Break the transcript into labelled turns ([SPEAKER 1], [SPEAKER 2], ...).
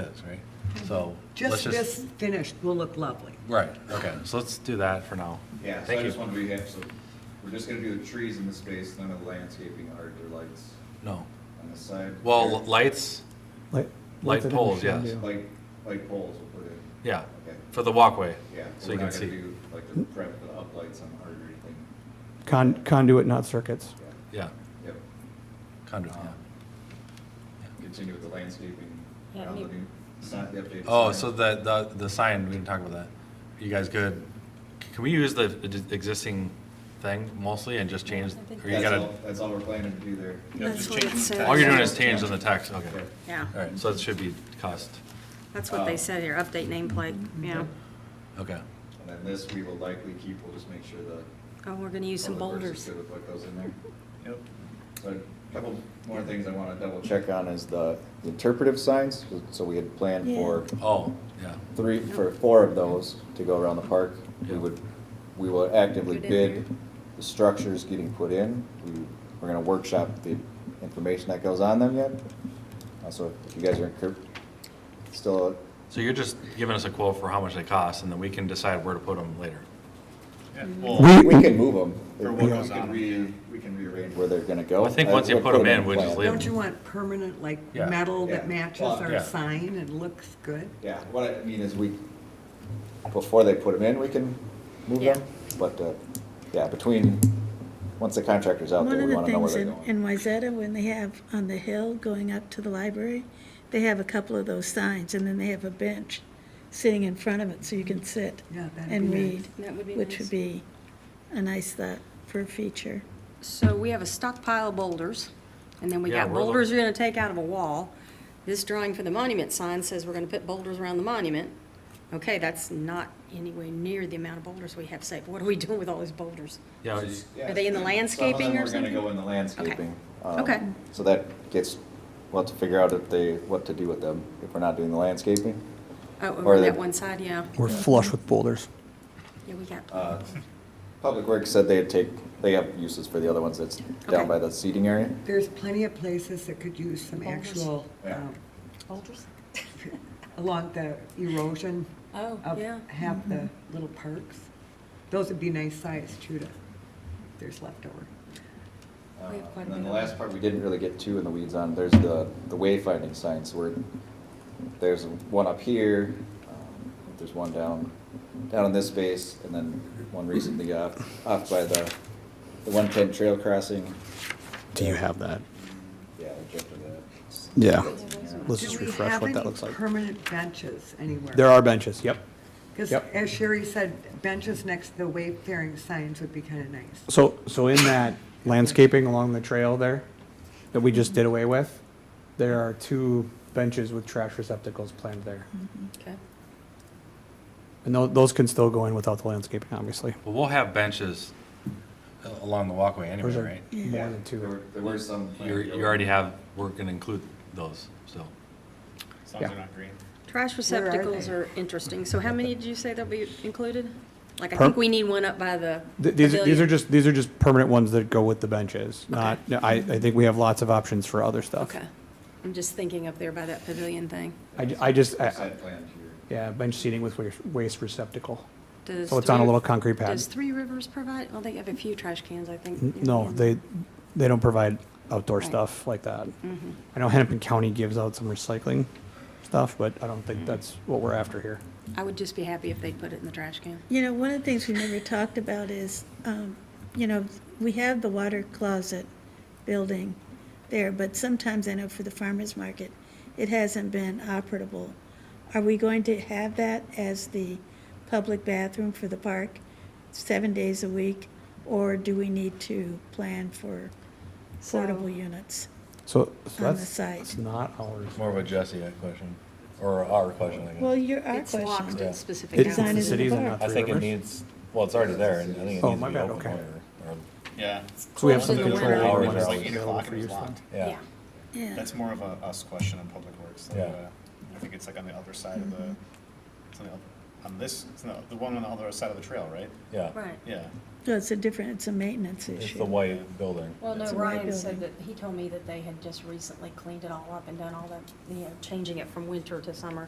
[SPEAKER 1] is, right? So. let's
[SPEAKER 2] Mhm. Just this finished will look lovely.
[SPEAKER 1] Right, okay, so let's do that for now.
[SPEAKER 3] Yeah, so
[SPEAKER 1] Thank
[SPEAKER 3] I just
[SPEAKER 1] you.
[SPEAKER 3] wanted to be, so we're just gonna do the trees in the space, none of the landscaping art or lights
[SPEAKER 1] No,
[SPEAKER 3] on the side.
[SPEAKER 1] well, l- lights,
[SPEAKER 4] Light
[SPEAKER 1] Light poles, yes.
[SPEAKER 3] Like, like poles we'll put in,
[SPEAKER 1] yeah,
[SPEAKER 3] okay,
[SPEAKER 1] for the walkway.
[SPEAKER 3] yeah. but
[SPEAKER 1] So you
[SPEAKER 3] we're
[SPEAKER 1] can
[SPEAKER 3] not gonna
[SPEAKER 1] see,
[SPEAKER 3] do, Like the prep, the uplights on art or anything,
[SPEAKER 4] Con- Conduit, not circuits.
[SPEAKER 3] yeah,
[SPEAKER 1] yeah,
[SPEAKER 3] yep.
[SPEAKER 1] conduit,
[SPEAKER 3] Uh,
[SPEAKER 1] yeah.
[SPEAKER 3] Continue with the landscaping.
[SPEAKER 5] Yeah,
[SPEAKER 3] around the
[SPEAKER 5] maybe-
[SPEAKER 3] new- It's not the updated.
[SPEAKER 1] Oh,
[SPEAKER 3] sign.
[SPEAKER 1] so the, the, the sign, we didn't talk about that. You guys good? C- Can we use the e-, the existing thing mostly and just change,
[SPEAKER 5] I think
[SPEAKER 1] or you
[SPEAKER 3] That's
[SPEAKER 1] gotta,
[SPEAKER 3] all, that's all we're planning to do there.
[SPEAKER 6] That's
[SPEAKER 5] just
[SPEAKER 6] what it
[SPEAKER 5] change the
[SPEAKER 6] says.
[SPEAKER 5] text.
[SPEAKER 1] all you're doing is changing the text, okay.
[SPEAKER 3] Okay.
[SPEAKER 6] Yeah,
[SPEAKER 1] All right, so it should be cost,
[SPEAKER 6] that's
[SPEAKER 4] Oh.
[SPEAKER 6] what they said here, update nameplate,
[SPEAKER 4] Mm-hmm.
[SPEAKER 6] yeah.
[SPEAKER 1] okay.
[SPEAKER 3] And then this we will likely keep, we'll just make sure the.
[SPEAKER 6] Oh, we're gonna use some
[SPEAKER 3] public works
[SPEAKER 6] boulders.
[SPEAKER 3] is Good with what goes in there. Yep. So a couple more things I wanna double check on is the interpretive signs, so we had planned for
[SPEAKER 1] Oh, yeah,
[SPEAKER 3] three, for four of those to go around the park. We would, we will actively
[SPEAKER 6] Put in
[SPEAKER 3] bid
[SPEAKER 6] there.
[SPEAKER 3] the structures getting put in. We, we're gonna workshop the information that goes on them yet. Uh, So if you guys are encur- still,
[SPEAKER 1] so you're just giving us a quote for how much they cost, and then we can decide where to put them later.
[SPEAKER 4] We-
[SPEAKER 3] we can move them.
[SPEAKER 7] Or what goes on 'em.
[SPEAKER 3] We can rearrange where they're gonna go.
[SPEAKER 1] I think once you
[SPEAKER 3] We'll
[SPEAKER 1] put 'em
[SPEAKER 3] it
[SPEAKER 1] in, we
[SPEAKER 3] the
[SPEAKER 1] just
[SPEAKER 3] plan.
[SPEAKER 1] leave-
[SPEAKER 2] Don't you want permanent, like,
[SPEAKER 1] Yeah.
[SPEAKER 2] metal that
[SPEAKER 3] Yeah.
[SPEAKER 2] matches
[SPEAKER 3] Well,
[SPEAKER 2] our
[SPEAKER 1] yeah.
[SPEAKER 2] sign and looks good?
[SPEAKER 3] Yeah, what I mean is we, before they put them in, we can move
[SPEAKER 6] Yeah.
[SPEAKER 3] them, but, uh, yeah, between, once the contractor's out
[SPEAKER 7] One
[SPEAKER 3] there,
[SPEAKER 7] of
[SPEAKER 3] we
[SPEAKER 7] the
[SPEAKER 3] wanna know where
[SPEAKER 7] things
[SPEAKER 3] they're
[SPEAKER 7] in, in
[SPEAKER 3] going.
[SPEAKER 7] Wayzata, when they have on the hill going up to the library, they have a couple of those signs, and then they have a bench sitting in front of it, so you can sit
[SPEAKER 2] Yeah, that'd
[SPEAKER 7] and
[SPEAKER 2] be nice.
[SPEAKER 7] read.
[SPEAKER 6] That would be
[SPEAKER 7] Which
[SPEAKER 6] nice.
[SPEAKER 7] would be a nice thought for a feature.
[SPEAKER 6] So we have a stockpile of boulders, and then we
[SPEAKER 1] Yeah,
[SPEAKER 6] got
[SPEAKER 1] we're look-
[SPEAKER 6] boulders you're gonna take out of a wall. This drawing for the monument sign says we're gonna put boulders around the monument. Okay, that's not anywhere near the amount of boulders we have saved. What are we doing with all those boulders?
[SPEAKER 1] Yeah,
[SPEAKER 6] Are they in the landscaping or
[SPEAKER 3] Some of them are gonna
[SPEAKER 6] something?
[SPEAKER 3] go in the landscaping. um,
[SPEAKER 6] Okay.
[SPEAKER 3] So that gets, we'll have to figure out if they, what to do with them, if we're not doing the landscaping.
[SPEAKER 6] Oh,
[SPEAKER 3] or
[SPEAKER 6] over
[SPEAKER 3] they-
[SPEAKER 6] that one side, yeah.
[SPEAKER 4] We're flush with boulders.
[SPEAKER 6] Yeah, we got,
[SPEAKER 3] Uh, Public Works said they'd take, they have uses for the other ones that's
[SPEAKER 6] Okay.
[SPEAKER 3] down by the seating area.
[SPEAKER 2] There's plenty of places that could use some
[SPEAKER 6] Boulders.
[SPEAKER 2] actual,
[SPEAKER 3] Yeah.
[SPEAKER 2] um,
[SPEAKER 6] boulders?
[SPEAKER 2] along the erosion
[SPEAKER 6] Oh,
[SPEAKER 2] of
[SPEAKER 6] yeah. Mm-hmm.
[SPEAKER 2] half the little parks. Those would be nice size too, to, if there's leftover.
[SPEAKER 3] Uh,
[SPEAKER 6] We have quite a
[SPEAKER 3] And then
[SPEAKER 6] bit
[SPEAKER 3] the
[SPEAKER 6] of
[SPEAKER 3] last part we didn't really get too in the weeds on, there's the, the wayfinding signs where, there's one up here, um, there's one down, down in this space, and then one recently off, off by the, the one-ten trail crossing.
[SPEAKER 4] Do you have that?
[SPEAKER 3] Yeah, I jumped to that.
[SPEAKER 4] Yeah. Let's
[SPEAKER 2] Do
[SPEAKER 4] just
[SPEAKER 2] we
[SPEAKER 4] refresh
[SPEAKER 2] have
[SPEAKER 4] what that
[SPEAKER 2] any
[SPEAKER 4] looks like.
[SPEAKER 2] Permanent benches anywhere?
[SPEAKER 4] There are benches, yep.
[SPEAKER 2] Because
[SPEAKER 4] yep.
[SPEAKER 2] as Sherry said, benches next to the wayfaring signs would be kind of nice.
[SPEAKER 4] So, so in that landscaping along the trail there that we just did away with, there are two benches with trash receptacles planned there.
[SPEAKER 6] Okay.
[SPEAKER 4] And tho- those can still go in without the landscaping, obviously.
[SPEAKER 1] Well, we'll have benches a- along the walkway
[SPEAKER 4] There's
[SPEAKER 1] anyway,
[SPEAKER 4] a-
[SPEAKER 1] right?
[SPEAKER 4] more than
[SPEAKER 3] There were-
[SPEAKER 4] two.
[SPEAKER 3] There were some.
[SPEAKER 1] You're, you already have, we're gonna include those, so.
[SPEAKER 7] As long
[SPEAKER 4] as Yeah. they're
[SPEAKER 7] not green.
[SPEAKER 6] Trash receptacles
[SPEAKER 2] they?
[SPEAKER 6] are interesting. So how many did you say there'll be included? Like, I
[SPEAKER 4] Per-
[SPEAKER 6] think we need one up by the
[SPEAKER 4] Th- These, are- these are
[SPEAKER 6] pavilion.
[SPEAKER 4] just, these are just permanent ones that go with the benches, not, I, I think we have lots of options for other stuff.
[SPEAKER 6] Okay. I'm just thinking up there by that pavilion thing.
[SPEAKER 4] I, ju- I just, I-
[SPEAKER 3] Side plan here.
[SPEAKER 4] yeah, bench seating with waste- waste receptacle.
[SPEAKER 6] Does
[SPEAKER 4] So Oh, it's on a
[SPEAKER 6] Three-
[SPEAKER 4] little concrete pad.
[SPEAKER 6] Does Three Rivers provide, well, they have a few trash cans, I
[SPEAKER 4] N-
[SPEAKER 6] think.
[SPEAKER 4] No, they, they don't provide outdoor
[SPEAKER 6] Right. Mm.
[SPEAKER 4] stuff like that.
[SPEAKER 6] Mm-hmm.
[SPEAKER 4] I know Hennepin County gives out some recycling stuff, but I don't think that's what we're after here.
[SPEAKER 6] I would just be happy if they put it in the trash can.
[SPEAKER 7] You know, one of the things we never talked about is, um, you know, we have the water closet building there, but sometimes I know for the farmer's market, it hasn't been operable. Are we going to have that as the public bathroom for the park, seven days a week? Or do we need to plan for portable
[SPEAKER 6] So-
[SPEAKER 7] units?
[SPEAKER 4] So, so
[SPEAKER 7] On the
[SPEAKER 4] that's,
[SPEAKER 7] site.
[SPEAKER 4] that's not ours.
[SPEAKER 1] It's more of a Jesse question, or our question, I
[SPEAKER 7] Well,
[SPEAKER 1] guess.
[SPEAKER 7] your, our
[SPEAKER 6] It's locked
[SPEAKER 7] question.
[SPEAKER 1] Yeah.
[SPEAKER 6] at specific
[SPEAKER 4] It- It's
[SPEAKER 7] Design
[SPEAKER 4] the
[SPEAKER 7] is
[SPEAKER 6] hours.
[SPEAKER 7] in the
[SPEAKER 4] cities and
[SPEAKER 7] park.
[SPEAKER 4] not
[SPEAKER 1] I
[SPEAKER 4] Three
[SPEAKER 1] think it
[SPEAKER 4] Rivers.
[SPEAKER 1] needs, well, it's already there, and I think it
[SPEAKER 4] Oh,
[SPEAKER 1] needs
[SPEAKER 4] my
[SPEAKER 1] to be
[SPEAKER 4] bad,
[SPEAKER 1] open
[SPEAKER 4] okay.
[SPEAKER 1] later, or-
[SPEAKER 8] Yeah,
[SPEAKER 4] So we have some
[SPEAKER 6] Closed in the
[SPEAKER 4] control
[SPEAKER 6] winter.
[SPEAKER 4] over
[SPEAKER 1] Hours
[SPEAKER 4] when
[SPEAKER 1] are
[SPEAKER 4] it's
[SPEAKER 1] like eight
[SPEAKER 4] available
[SPEAKER 8] o'clock
[SPEAKER 4] for
[SPEAKER 8] and
[SPEAKER 4] use
[SPEAKER 8] it's
[SPEAKER 4] then.
[SPEAKER 8] locked.
[SPEAKER 1] Yeah,
[SPEAKER 7] Yeah,
[SPEAKER 8] that's more of a us question on Public Works. than,
[SPEAKER 1] Yeah.
[SPEAKER 4] Mm-hmm.
[SPEAKER 8] uh, I think it's like on the other side of the, it's on the other on this, no, the one on the other side of the trail, right?
[SPEAKER 1] Yeah.
[SPEAKER 6] Right.
[SPEAKER 8] Yeah.
[SPEAKER 7] No, it's a different, it's a maintenance issue.
[SPEAKER 1] It's the white building.
[SPEAKER 6] Well, no,
[SPEAKER 7] It's a white
[SPEAKER 6] Ryan said that,
[SPEAKER 7] building.
[SPEAKER 6] he told me that they had just recently cleaned it all up and done all that, you know, changing it from winter to summer.